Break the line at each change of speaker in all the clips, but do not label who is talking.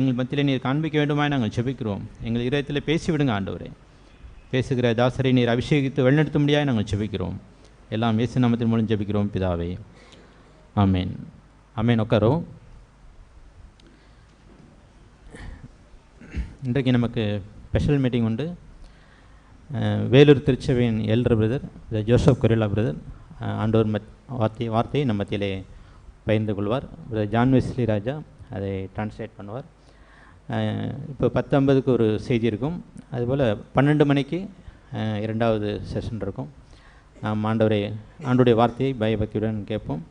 எங்கள் மத்தியிலே நீர் காண்பிக்க வேண்டுமாய் நாங்கள் ஜெபிக்கிறோம் எங்கள் இதயத்தில் பேசிவிடுங்க ஆண்டவரே பேசுகிற தாசரை நீர் அபிஷேகித்து வழிநடத்தும்படியாய் நாங்கள் ஜெபிக்கிறோம் எல்லாம் இயேசு நாமத்தின் மூலம் ஜெபிக்கிறோம் பிதாவே ஆமென் ஆமென் உட்காரோ இன்றைக்கு நமக்கு ஸ்பெஷல் மீட்டிங் உண்டு அஹ், வேலூர் திருச்சபையின் எல்டர் பிரதர் ஜோசப் கொரில்லா பிரதர் அஹ், ஆண்டவர் மத் வார்த்தை வார்த்தையை நம் மத்தியிலே பகிர்ந்து கொள்வார் பிரதர் ஜான் வெஸ்லி ராஜா அதை டிரான்ஸ்லேட் பண்ணுவார் அஹ், இப்போ பத்து ஐம்பதுக்கு ஒரு செய்தி இருக்கும் அதுபோல் பன்னெண்டு மணிக்கு அஹ், இரண்டாவது செஷன் இருக்கும் நாம் ஆண்டவரை ஆண்டுடைய வார்த்தையை பயபக்தியுடன் கேட்போம்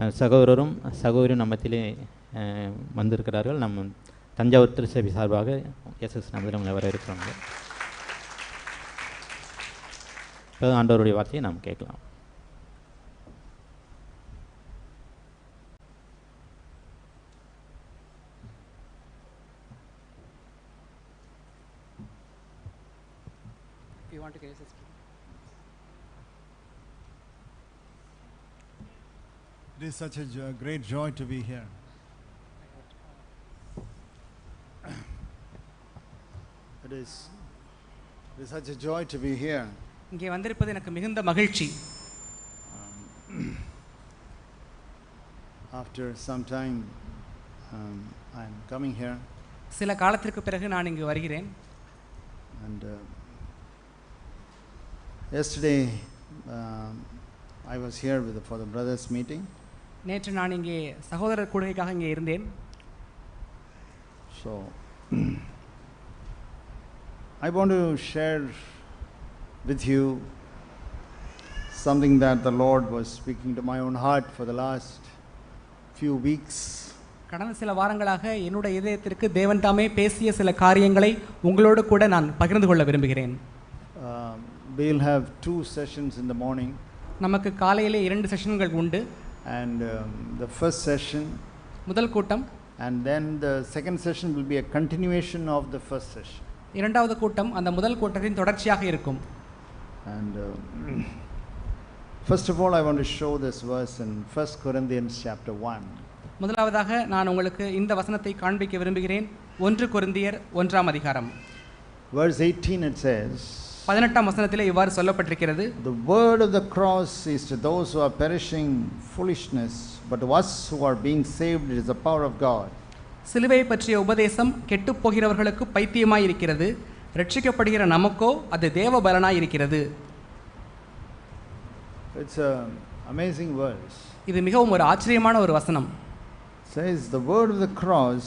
அஹ், சகோதரரும் சகோதரியும் நம்மத்திலே அஹ், வந்திருக்கிறார்கள் நம்ம தஞ்சாவூர் திருச்சபை சார்பாக எஸ்எஸ் நமதில் உங்களை வரவேற்கிறாங்க இப்போ ஆண்டவருடைய வார்த்தையை நாம் கேட்கலாம்
You want to carry this?
It is such a jo- great joy to be here. It is, it is such a joy to be here.
இங்கே வந்திருப்பது எனக்கு மிகுந்த மகிழ்ச்சி
Um, after some time, um, I'm coming here,
சில காலத்திற்கு பிறகு நான் இங்கு வருகிறேன்
and uh, yesterday um, I was here with the, for the brothers' meeting.
நேற்று நான் இங்கே சகோதரர் கூடுகைக்காக இங்கே இருந்தேன்
So, I want to share with you something that the Lord was speaking to my own heart for the last few weeks.
கடந்த சில வாரங்களாக என்னுடைய இதயத்திற்கு தேவன் தாமே பேசிய சில காரியங்களை உங்களோடு கூட நான் பகிர்ந்து கொள்ள விரும்புகிறேன்
Um, we'll have two sessions in the morning,
நமக்கு காலையிலே இரண்டு செஷன்கள் உண்டு
and um, the first session,
முதல் கூட்டம்
and then the second session will be a continuation of the first session.
இரண்டாவது கூட்டம் அந்த முதல் கூட்டத்தின் தொடர்ச்சியாக இருக்கும்
And um, first of all, I want to show this verse in 1 Corinthians chapter 1.
முதலாவதாக நான் உங்களுக்கு இந்த வசனத்தை காண்பிக்க விரும்புகிறேன் ஒன்று கொருந்தியர் ஒன்றாம் அதிகாரம்
Verse 18 it says,
பதினெட்டாம் வசனத்திலே இவ்வாறு சொல்லப்பட்டிருக்கிறது
The word of the cross is to those who are perishing foolishness, but to us who are being saved it is the power of God.
சிலுவையை பற்றிய உபதேசம் கெட்டுப்போகிறவர்களுக்கு பைத்தியமாய் இருக்கிறது ரட்சிக்கப்படுகிற நமக்கோ அது தேவ பலனாய் இருக்கிறது
It's an amazing verse.
இது மிகவும் ஒரு ஆச்சரியமான ஒரு வசனம்
It says, The word of the cross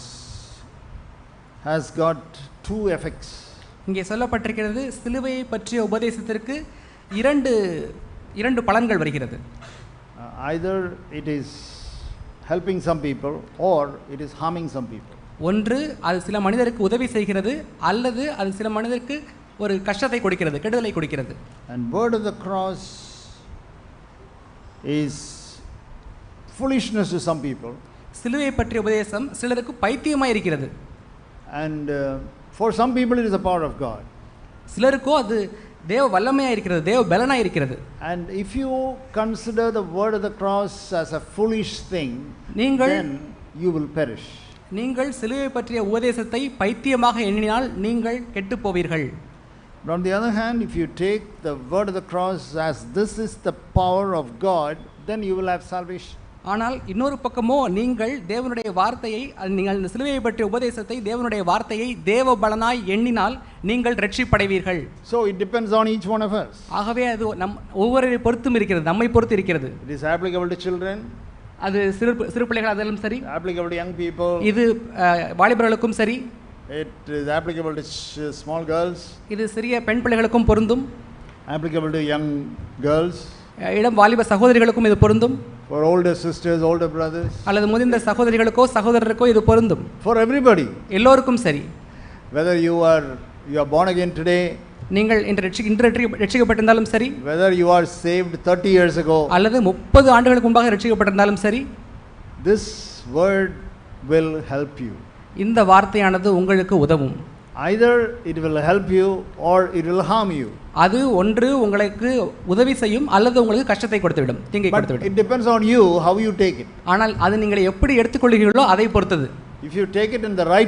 has got two effects.
இங்கே சொல்லப்பட்டிருக்கிறது சிலுவையை பற்றிய உபதேசத்திற்கு இரண்டு இரண்டு பலன்கள் வருகிறது
Uh, either it is helping some people or it is harming some people.
ஒன்று அது சில மனிதருக்கு உதவி செய்கிறது அல்லது அது சில மனிதருக்கு ஒரு கஷ்டத்தை கொடுக்கிறது கெடுதலை கொடுக்கிறது
And word of the cross is foolishness to some people.
சிலுவையை பற்றிய உபதேசம் சிலருக்கு பைத்தியமாய் இருக்கிறது
And uh, for some people, it is the power of God.
சிலருக்கோ அது தேவ வல்லமையாக இருக்கிறது தேவ பலனாய் இருக்கிறது
And if you consider the word of the cross as a foolish thing,
நீங்கள்
then you will perish.
நீங்கள் சிலுவை பற்றிய உபதேசத்தை பைத்தியமாக எண்ணினால் நீங்கள் கெட்டுப் போவீர்கள்
But on the other hand, if you take the word of the cross as this is the power of God, then you will have salvation.
ஆனால் இன்னொரு பக்கமோ நீங்கள் தேவனுடைய வார்த்தையை அது நீங்கள் இந்த சிலுவையை பற்றிய உபதேசத்தை தேவனுடைய வார்த்தையை தேவ பலனாய் எண்ணினால் நீங்கள் ரட்சிப்படைவீர்கள்
So it depends on each one of us.
ஆகவே அது நம் ஒவ்வொருவரை பொறுத்தும் இருக்கிறது நம்மை பொறுத்து இருக்கிறது
It is applicable to children,
அது சிறு சிறு பிள்ளைகள் அதிலும் சரி
applicable to young people,
இது அஹ், வாலிபர்களுக்கும் சரி
it is applicable to ch- small girls,
இது சிறிய பெண் பிள்ளைகளுக்கும் பொருந்தும்
applicable to young girls,
அஹ், இளம் வாலிப சகோதரிகளுக்கும் இது பொருந்தும்
for older sisters, older brothers,
அல்லது முதிர்ந்த சகோதரிகளுக்கோ சகோதரருக்கோ இது பொருந்தும்
for everybody.
எல்லோருக்கும் சரி
whether you are you are born again today
நீங்கள் இன்று ரட்சி- இன்று ரட்சி- ரட்சிக்கப்பட்டிருந்தாலும் சரி
whether you are saved 30 years ago
அல்லது முப்பது ஆண்டுகளுக்கு முன்பாக ரட்சிக்கப்பட்டிருந்தாலும் சரி
this word will help you
இந்த வார்த்தையானது உங்களுக்கு உதவும்
either it will help you or it will harm you
அது ஒன்று உங்களுக்கு உதவி செய்யும் அல்லது உங்களுக்கு கஷ்டத்தை கொடுத்துவிடும் தீங்கை
but
கொடுத்துவிடும்
it depends on you how you take it
ஆனால் அது நீங்கள் எப்படி எடுத்துக்கொள்கிறீர்களோ அதை பொறுத்தது
If you take it in the right